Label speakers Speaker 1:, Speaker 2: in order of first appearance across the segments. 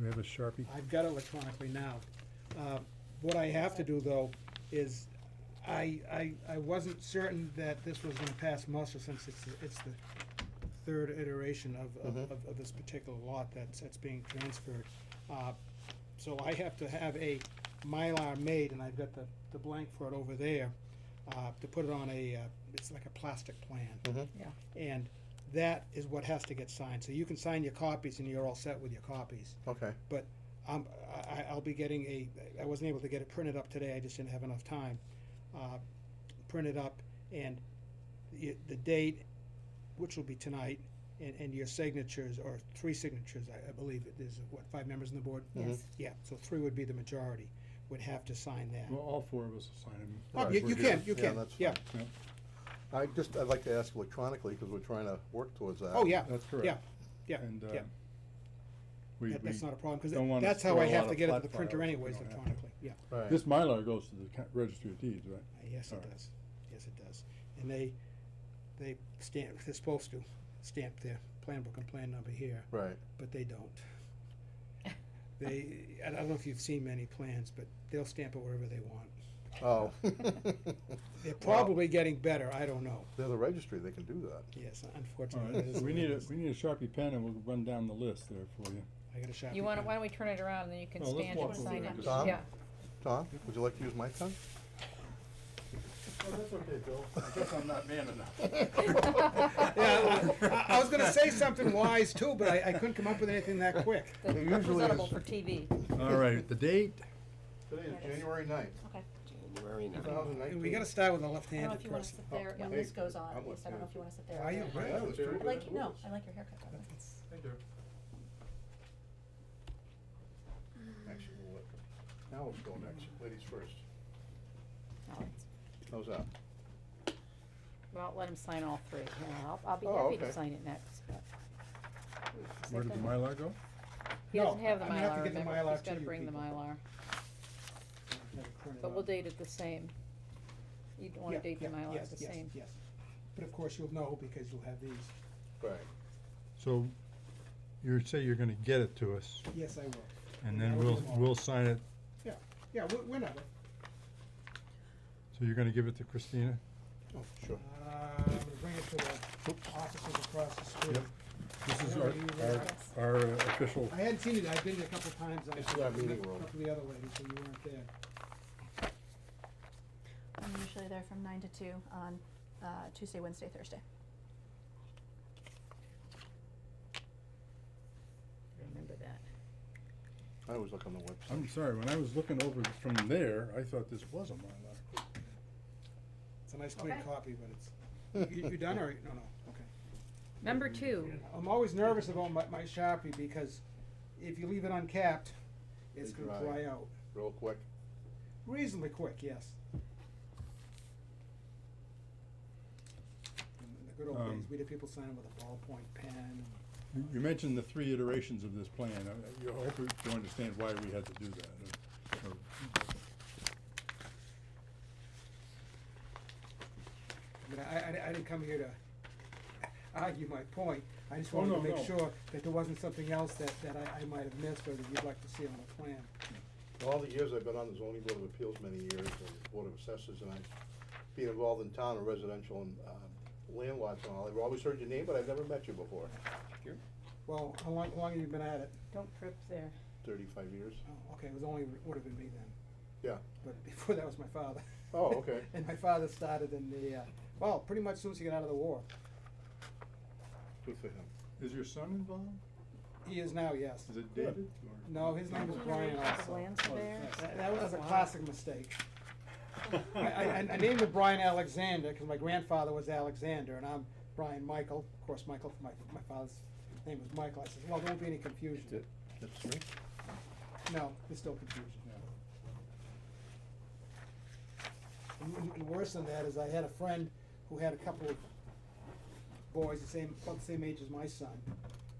Speaker 1: we have a Sharpie?
Speaker 2: I've got it electronically now. Uh, What I have to do, though, is I, I, I wasn't certain that this was gonna pass muster since it's, the- it's the third iteration of, of-
Speaker 3: Mhm.
Speaker 2: of, of this particular lot that's, that's being transferred. Uh, So I have to have a Mylar made, and I've got the, the blank for it over there, uh, to put it on a, uh, it's like a plastic plan.
Speaker 3: Mhm.
Speaker 4: Yeah.
Speaker 2: And that is what has to get signed. So you can sign your copies, and you're all set with your copies.
Speaker 3: Okay,
Speaker 2: I'm, I, I'll be getting a, I wasn't able to get it printed up today, I just didn't have enough time. Uh, Printed up and the, the date, which will be tonight, and, and your signatures, or three signatures, I, I believe, it- there's, what, five members on the board? Mm-hmm.
Speaker 4: Yes.
Speaker 2: Yeah, so three would be the majority, would have to sign that.
Speaker 1: Well, all four of us will sign them.
Speaker 2: Oh,
Speaker 3: right,
Speaker 2: you,
Speaker 3: we're
Speaker 2: you can,
Speaker 3: good.
Speaker 2: you
Speaker 3: Yeah,
Speaker 2: can,
Speaker 3: that's
Speaker 2: yeah,
Speaker 3: I just, I'd like to ask electronically, because we're trying to work towards that.
Speaker 2: oh, yeah,
Speaker 1: That's correct.
Speaker 2: Yeah, yeah,
Speaker 1: And, uh,
Speaker 2: yeah.
Speaker 1: we,
Speaker 2: that, that's
Speaker 1: we,
Speaker 2: not a problem,
Speaker 1: don't
Speaker 2: because
Speaker 1: wanna
Speaker 2: that's how I
Speaker 1: store a lot
Speaker 2: have to
Speaker 1: of
Speaker 2: get it to
Speaker 1: flat
Speaker 2: the printer
Speaker 1: files if we
Speaker 2: anyways
Speaker 1: don't have to.
Speaker 2: electronically, yeah.
Speaker 3: Right.
Speaker 1: this Mylar goes to the ca- registry of deeds, right?
Speaker 2: Uh, Yes, it
Speaker 1: Alright.
Speaker 2: does. Yes, it does. And they, they stamp, they're supposed to stamp their plan book and plan number here,
Speaker 3: Right,
Speaker 2: but they don't. They, I don't know if you've seen many plans, but they'll stamp it wherever they want.
Speaker 3: oh.
Speaker 2: They're
Speaker 3: Wow.
Speaker 2: probably getting better, I don't know.
Speaker 3: They're the registry, they can do that.
Speaker 2: Yes,
Speaker 1: All
Speaker 2: unfortunately.
Speaker 1: right,
Speaker 2: it
Speaker 1: so
Speaker 2: is
Speaker 1: we
Speaker 2: the way
Speaker 1: need
Speaker 2: it
Speaker 1: a,
Speaker 2: is.
Speaker 1: we need a Sharpie pen and we'll run down the list there for you.
Speaker 2: I got a Sharpie
Speaker 4: You wanna,
Speaker 2: pen.
Speaker 4: why don't we turn it around and then you can
Speaker 1: Well, Oh, let's
Speaker 4: stand
Speaker 1: walk
Speaker 4: and
Speaker 1: over
Speaker 4: sign
Speaker 1: there
Speaker 4: up.
Speaker 1: and
Speaker 3: just-
Speaker 4: Yeah,
Speaker 3: Tom, would you like to use my pen?
Speaker 1: that's okay, Bill. I guess I'm not man enough.
Speaker 2: Yeah, I- I, I was gonna say something wise too, but I, I couldn't come up with anything that quick.
Speaker 4: that's
Speaker 3: It usually
Speaker 4: presentable
Speaker 3: is-
Speaker 4: for TV.
Speaker 1: All right, the date,
Speaker 3: Today
Speaker 4: is
Speaker 3: January ninth,
Speaker 4: Okay.
Speaker 5: January
Speaker 3: two
Speaker 5: ninth.
Speaker 3: thousand
Speaker 2: And we gotta start with a
Speaker 4: I don't know if
Speaker 2: left-handed
Speaker 4: you wanna
Speaker 2: person.
Speaker 4: sit there, when
Speaker 3: hey,
Speaker 4: this goes on,
Speaker 3: I'm
Speaker 4: at least, I don't know if you wanna sit there. or
Speaker 2: Why you-
Speaker 4: there.
Speaker 2: why you-
Speaker 4: I like, you- no, I like your haircut. by the way.
Speaker 3: Thank you. Actually, we'll let, now let's go next, ladies first.
Speaker 4: No, it's-
Speaker 3: How's that?
Speaker 4: Well, let him sign all three. Yeah, I'll, I'll be
Speaker 3: Oh,
Speaker 4: happy to
Speaker 3: okay.
Speaker 4: sign it next, but. Is
Speaker 1: where
Speaker 4: that
Speaker 1: did the
Speaker 4: done?
Speaker 1: Mylar go?
Speaker 4: He
Speaker 2: No,
Speaker 4: doesn't have the
Speaker 2: I'm gonna have to
Speaker 4: Mylar,
Speaker 2: get the
Speaker 4: remember,
Speaker 2: Mylar
Speaker 4: he's
Speaker 2: to
Speaker 4: gotta
Speaker 2: you
Speaker 4: bring the
Speaker 2: people.
Speaker 4: Mylar,
Speaker 2: Print it
Speaker 4: but
Speaker 2: up.
Speaker 4: we'll date it the same. You'd wanna
Speaker 2: Yeah,
Speaker 4: date the
Speaker 2: yeah,
Speaker 4: Mylar
Speaker 2: yes,
Speaker 4: the
Speaker 2: yes,
Speaker 4: same.
Speaker 2: Yes, but of course you'll know because you'll have these.
Speaker 3: Right.
Speaker 6: So you say you're gonna get it to us,
Speaker 2: Yes, I will.
Speaker 6: and then
Speaker 2: That'll be
Speaker 6: we'll,
Speaker 2: tomorrow.
Speaker 6: we'll sign it,
Speaker 2: Yeah, wh- whenever.
Speaker 6: so you're gonna give it to Christina?
Speaker 3: Oh, sure.
Speaker 2: Uh, I'm gonna bring it to the offices across the street.
Speaker 1: Yep. This is
Speaker 2: Yeah,
Speaker 1: our,
Speaker 2: you
Speaker 1: our,
Speaker 2: realize.
Speaker 1: our uh, official,
Speaker 2: I hadn't seen it, I've been there a couple of times. I
Speaker 3: It's in our meeting
Speaker 2: met
Speaker 3: room.
Speaker 2: A couple of the other ladies, so you weren't there.
Speaker 7: I'm usually there from nine to two on uh, Tuesday, Wednesday, Thursday.
Speaker 4: Remember that.
Speaker 3: I always look on the website.
Speaker 1: I'm sorry, when I was looking over from there, I thought this was a Mylar.
Speaker 2: It's a nice clean
Speaker 4: Okay.
Speaker 2: copy, but it's, you, you done or, no, no, okay.
Speaker 4: Number two,
Speaker 2: I'm always nervous about my, my Sharpie because if you leave it uncapped, it's
Speaker 3: They
Speaker 2: gonna
Speaker 3: dry.
Speaker 2: dry out
Speaker 3: Real quick.
Speaker 2: reasonably quick, yes. In the good old days,
Speaker 1: Um,
Speaker 2: we did people sign with a ballpoint pen and
Speaker 1: You- You mentioned the three iterations of this plan. I- I you- I hope you understand why we had to do that. uh, or-
Speaker 2: I mean, I, I, I didn't come here to argue my point, I just
Speaker 1: Oh,
Speaker 2: wanted
Speaker 1: no,
Speaker 2: to
Speaker 1: no.
Speaker 2: make sure that there wasn't something else that, that I, I might have missed or that you'd like to see on the plan.
Speaker 3: All the years I've been on the zoning board of appeals, many years, and board of assessors, and I've been involved in town and residential and um, land lots and all, I've always heard your name, but I've never met you before.
Speaker 2: Well, how long, how long have you been at it?
Speaker 4: don't trip there.
Speaker 3: Thirty-five years.
Speaker 2: Oh, okay, it was only, would have been me then.
Speaker 3: Yeah.
Speaker 2: But before that was my father.
Speaker 3: Oh, okay.
Speaker 2: And my father started in the, uh, well, pretty much soon as he got out of the war.
Speaker 3: Good for him.
Speaker 1: Is your son involved?
Speaker 2: He is now, yes.
Speaker 1: Is it David? or-
Speaker 2: No, his name was Brian
Speaker 4: The
Speaker 2: also.
Speaker 4: land surveyor?
Speaker 2: That, that was a
Speaker 4: Wow.
Speaker 2: classic mistake. I, I, I named him Brian Alexander because my grandfather was Alexander and I'm Brian Michael. Of course, Michael, my, my father's name was Michael. I said, well, there won't be any confusion.
Speaker 3: That's it. That's me.
Speaker 2: No, there's still confusion. And- and- And worse than that is I had a friend who had a couple of boys the same, about the same age as my son.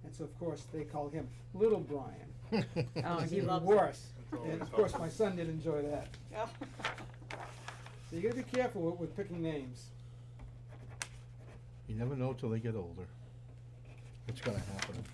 Speaker 2: And so, of course, they called him Little Brian.
Speaker 4: Oh,
Speaker 2: which is
Speaker 4: he
Speaker 2: even
Speaker 4: loves it.
Speaker 2: Worse.
Speaker 1: That's
Speaker 2: And
Speaker 1: always
Speaker 2: of course,
Speaker 1: helpful.
Speaker 2: my son did enjoy that. So you gotta be careful with, with picking names.
Speaker 5: You never know till they get older. What's gonna happen?